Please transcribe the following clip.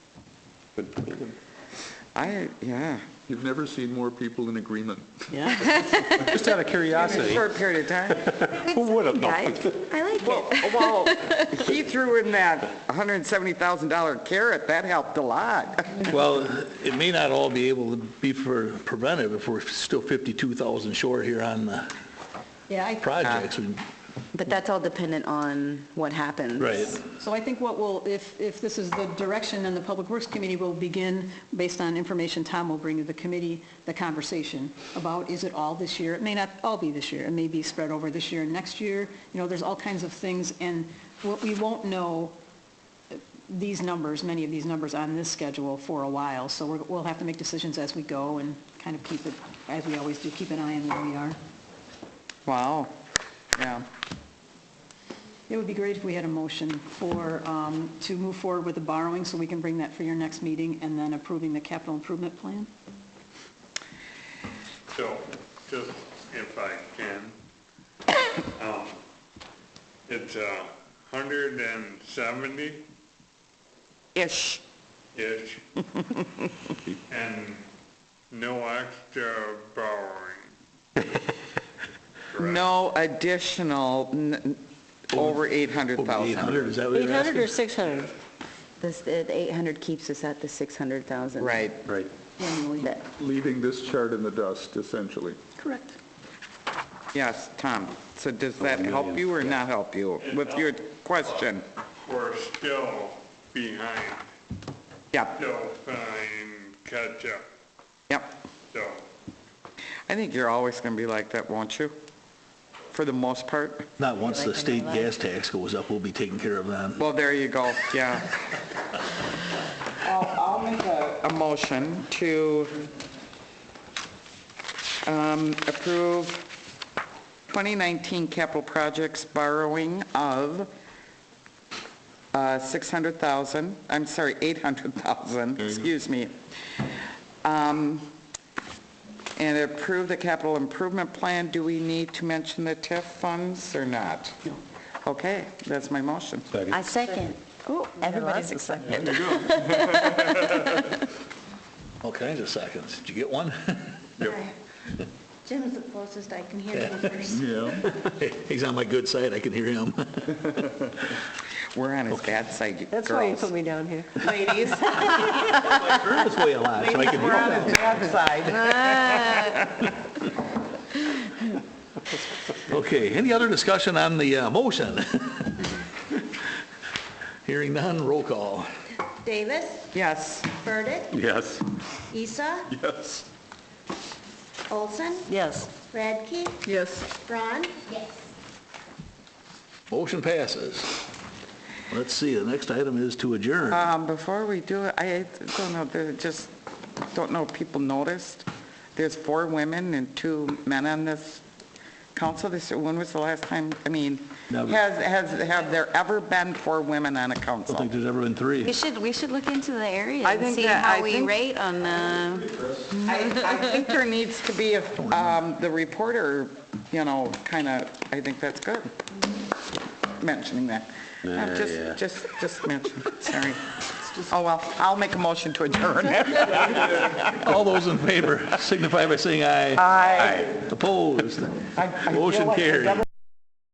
But I, yeah, you've never seen more people in agreement. Yeah, Just out of curiosity, short period of time. who would have known? I like Well, it. well, he threw in that $170,000 carrot, that helped a lot. Well, it may not all be able to be for preventive if we're still 52,000 short here on the yeah. I- projects. We- But that's all dependent on what happens. Right. So I think what will, if, if this is the direction, and the Public Works Committee will begin, based on information Tom will bring to the committee, the conversation about, is it all this year? It may not all be this year, it may be spread over this year and next year, you know, there's all kinds of things, and what we won't know, uh, these numbers, many of these numbers on this schedule for a while, so we're- we'll have to make decisions as we go and kind of keep it, as we always do, keep an eye on where we are. Wow, yeah. It would be great if we had a motion for, um, to move forward with the borrowing, so we can bring that for your next meeting, and then approving the capital improvement plan. So, just if I can, um, it's a hundred and seventy-ish, Ish, and no extra borrowing. correct? no additional, n- n- over 800,000. 800, is that what you're 800 asking? or 600? This, the 800 keeps us at the 600,000. Right. Right. Annually. That- Leaving this chart in the dust, essentially. Correct. Yes, Tom, so does that help you or not help you with your question? We're still behind, Yep, still behind catch-up, yep. so, I think you're always going to be like that, won't you? For the most part? Not once the state gas tax goes up, we'll be taken care of then. Well, there you go, yeah. I'll, I'll make a... A motion to um, approve 2019 capital projects borrowing of uh, 600,000, I'm sorry, 800,000, excuse me. Um, And approve the capital improvement plan. Do we need to mention the TIF funds or not? No. Okay, that's my motion. I second. Oh, everybody's excited. All kinds of seconds. Did you get one? Jim's the closest I can hear you first. Yeah. He's on my good side, I can hear him. We're on his bad side, girls. That's why you put me down here. Ladies. That's way a lot, so I can We're on hear his bad side. him. Okay, any other discussion on the uh, motion? Hearing none, roll call. Davis, Yes. Burdick, Yes. Isa, Yes. Olson, Yes. Radke, Yes. Braun. Yes. Motion passes. Let's see, the next item is to adjourn. Um, Before we do it, I don't know, there just, don't know if people noticed, there's four women and two men on this council. This, when was the last time, I mean, Never. has, has, have there ever been four women on a I don't council? think there's ever been three. We should, we should look into the area I and think see that- I how we think- rate on uh, the, I, I think there needs to be, a- um, the reporter, you know, kind of, I think that's good, mentioning that. I'm yeah. Just, just, just mention, sorry. Oh, well, I'll make a motion to adjourn. All those in favor signify by saying aye. Aye. Opposed? I- I feel Motion like the carried.